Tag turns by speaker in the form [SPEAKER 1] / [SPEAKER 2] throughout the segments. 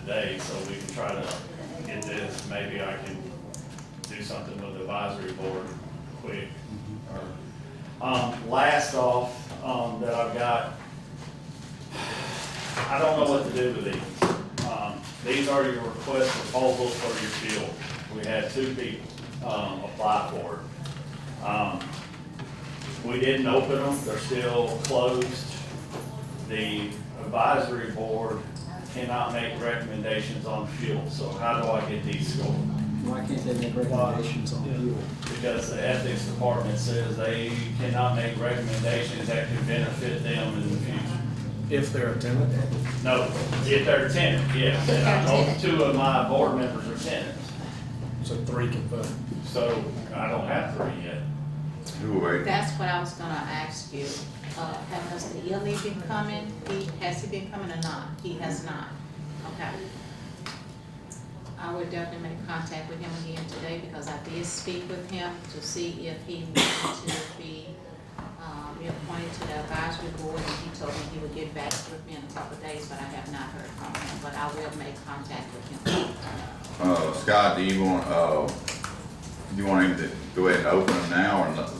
[SPEAKER 1] today, so we can try to get this, maybe I can do something with the advisory board quick. or- Um, last off, um, that I've got, I don't know what to do with these. Um, These are your request proposals for your field. We had two people, um, apply for it. Um, We didn't open them, they're still closed. The advisory board cannot make recommendations on fuel, so how do I get these scored?
[SPEAKER 2] Why can't they make recommendations on fuel?
[SPEAKER 1] because the ethics department says they cannot make recommendations that could benefit them in the future.
[SPEAKER 3] If they're a tenant,
[SPEAKER 1] No, if they're a tenant, yes, and I know two of my board members are tenants,
[SPEAKER 3] so three can vote.
[SPEAKER 1] so I don't have three yet.
[SPEAKER 4] Who are we?
[SPEAKER 5] That's what I was gonna ask you. Uh, has Mr. Ely been coming? He, has he been coming or not? He has not. Okay. I would definitely make contact with him again today because I did speak with him to see if he wanted to be, um, reappointed to the advisory board. And he told me he would get back with me in a couple of days, but I have not heard from him. But I will make contact with him.
[SPEAKER 4] Uh, Scott, do you want, uh, do you want him to go ahead and open them now and let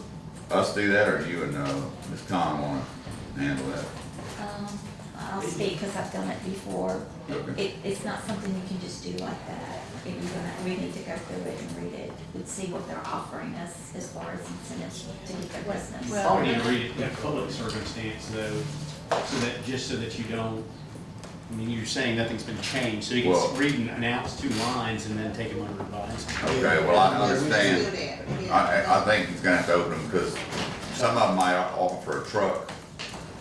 [SPEAKER 4] us do that, or you and, uh, Ms. Con wanna handle that?
[SPEAKER 6] Um, I'll speak because I've done it before.
[SPEAKER 4] Okay.
[SPEAKER 6] It, it's not something you can just do like that. If you're gonna, we need to go through it and read it and see what they're offering us as far as incentives to get their business.
[SPEAKER 5] Well-
[SPEAKER 7] I need to read it in a public circumstance though, so that, just so that you don't, I mean, you're saying nothing's been changed, so you can
[SPEAKER 4] Well-
[SPEAKER 7] s- read and announce two lines and then take them under advisement.
[SPEAKER 4] Okay, well, I
[SPEAKER 5] Do
[SPEAKER 4] understand.
[SPEAKER 5] that.
[SPEAKER 4] I, I, I think he's gonna have to open them, cause some of them might offer a truck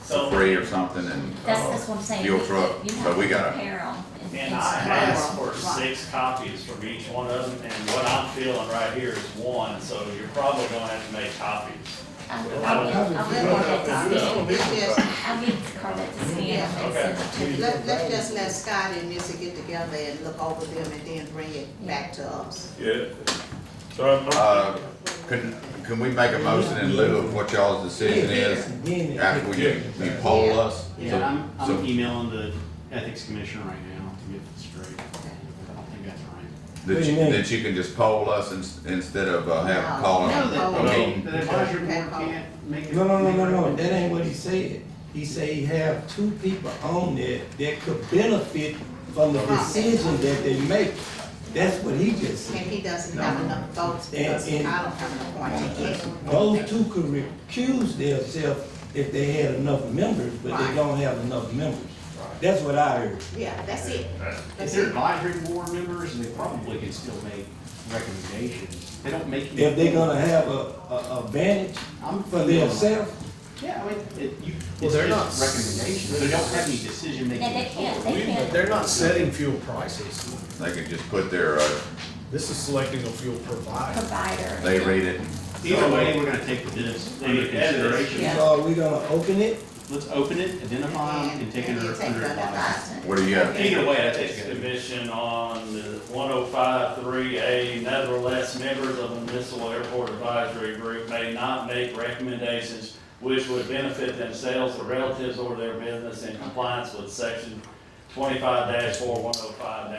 [SPEAKER 4] for
[SPEAKER 1] So,
[SPEAKER 4] free or something and,
[SPEAKER 6] That's, that's what
[SPEAKER 4] uh,
[SPEAKER 6] I'm saying.
[SPEAKER 4] fuel
[SPEAKER 6] You-
[SPEAKER 4] truck,
[SPEAKER 6] you
[SPEAKER 4] so
[SPEAKER 6] have
[SPEAKER 4] we
[SPEAKER 6] to
[SPEAKER 4] gotta,
[SPEAKER 6] Compare them.
[SPEAKER 1] and I asked for six copies from each one of them, and what I'm feeling right here is one, so you're probably gonna have to make copies.
[SPEAKER 6] I'll, I'll, I'll, I'll,
[SPEAKER 5] Let's just-
[SPEAKER 6] I'll get Carla to see it and send it to you.
[SPEAKER 5] Let, let's just let Scott and Missy get together and look over them and then bring it back to us.
[SPEAKER 8] Yeah. So I'm,
[SPEAKER 4] uh, can, can we make a motion in lieu of what y'all's decision is? After we, you poll us? So-
[SPEAKER 7] Yeah, I'm,
[SPEAKER 4] so-
[SPEAKER 7] I'm emailing the ethics commissioner right now to get this straight. I think that's right.
[SPEAKER 4] That
[SPEAKER 3] What do
[SPEAKER 4] you,
[SPEAKER 3] you mean?
[SPEAKER 4] that you can just poll us ins- instead of uh, having
[SPEAKER 5] No.
[SPEAKER 4] calling.
[SPEAKER 5] No, they-
[SPEAKER 7] No,
[SPEAKER 4] Okay.
[SPEAKER 7] the, the advisory board can't make.
[SPEAKER 9] No, no, no, no, no, that ain't what he said. He said he have two people on there that could benefit from the decision that they make. That's what he just
[SPEAKER 5] And
[SPEAKER 9] said.
[SPEAKER 5] he doesn't have enough votes because I
[SPEAKER 9] And-
[SPEAKER 5] don't
[SPEAKER 9] and-
[SPEAKER 5] have an appointee yet.
[SPEAKER 9] Those two could recuse themselves if they had enough members, but they
[SPEAKER 5] Right.
[SPEAKER 9] don't have enough members. That's what I heard.
[SPEAKER 5] Yeah, that's it.
[SPEAKER 7] If
[SPEAKER 5] That's
[SPEAKER 7] they're
[SPEAKER 5] it.
[SPEAKER 7] advisory board members, they probably can still make recommendations. They don't make.
[SPEAKER 9] If they're gonna have a, a a advantage
[SPEAKER 7] I'm
[SPEAKER 9] for
[SPEAKER 7] feeling-
[SPEAKER 9] themselves,
[SPEAKER 7] Yeah, I mean, it, you,
[SPEAKER 3] Well,
[SPEAKER 7] it's
[SPEAKER 3] they're
[SPEAKER 7] just
[SPEAKER 3] not-
[SPEAKER 7] recommendations, they don't have any decision making.
[SPEAKER 6] And they can't, they
[SPEAKER 3] But
[SPEAKER 6] can't.
[SPEAKER 3] They're not setting fuel prices.
[SPEAKER 4] They can just put their, uh,
[SPEAKER 3] This is selecting a fuel provider.
[SPEAKER 6] Provider.
[SPEAKER 4] they read it.
[SPEAKER 7] Either way, we're gonna take this under consideration.
[SPEAKER 6] Yeah.
[SPEAKER 9] so are we gonna open it?
[SPEAKER 7] Let's open it, identify them, and take it
[SPEAKER 5] And
[SPEAKER 7] under,
[SPEAKER 5] you take
[SPEAKER 7] under
[SPEAKER 5] it under
[SPEAKER 7] advisement.
[SPEAKER 6] advisement.
[SPEAKER 4] What do you got?
[SPEAKER 1] Either way, ethics commission on the one oh five three A, nevertheless, members of the municipal airport advisory group may not make recommendations which would benefit themselves or relatives or their business in compliance with section twenty-five four one oh five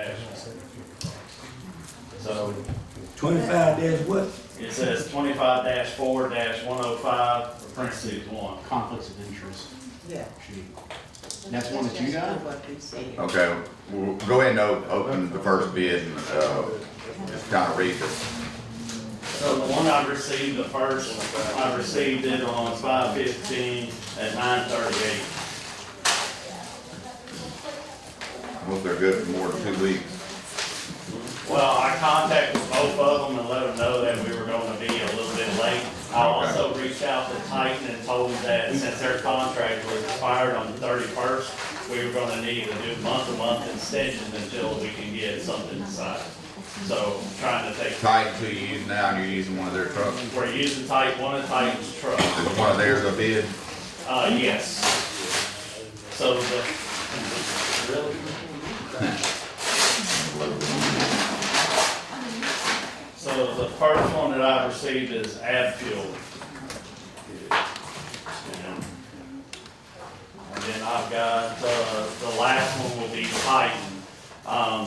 [SPEAKER 1] So
[SPEAKER 9] Twenty-five days what?
[SPEAKER 1] it says twenty-five four one oh five, parentheses one.
[SPEAKER 7] Conflicts of interest,
[SPEAKER 5] Yeah.
[SPEAKER 7] should be- That's one that you
[SPEAKER 5] Let's
[SPEAKER 7] got?
[SPEAKER 5] just do what we said.
[SPEAKER 4] Okay, we'll go ahead and o- open the first bid and, uh, just kind of read this.
[SPEAKER 1] So the one I received, the first, I received it on five fifteen at nine thirty-eight.
[SPEAKER 4] I Hope they're good for more than two weeks.
[SPEAKER 1] Well, I contacted both of them and let them know that we were gonna be a little bit late. I also reached out to Titan and told them that since their contract was expired on the thirty-first, we were gonna need to do month-to-month extensions until we can get something decided. So trying to take,
[SPEAKER 4] Titan, who you use now, and you're using one of their trucks?
[SPEAKER 1] we're using Titan, one of Titan's trucks.
[SPEAKER 4] Is one of theirs a bid?
[SPEAKER 1] Uh, yes. So the, really? So the first one that I received is ad fuel. And then I've got, uh, the last one will be Titan. Um,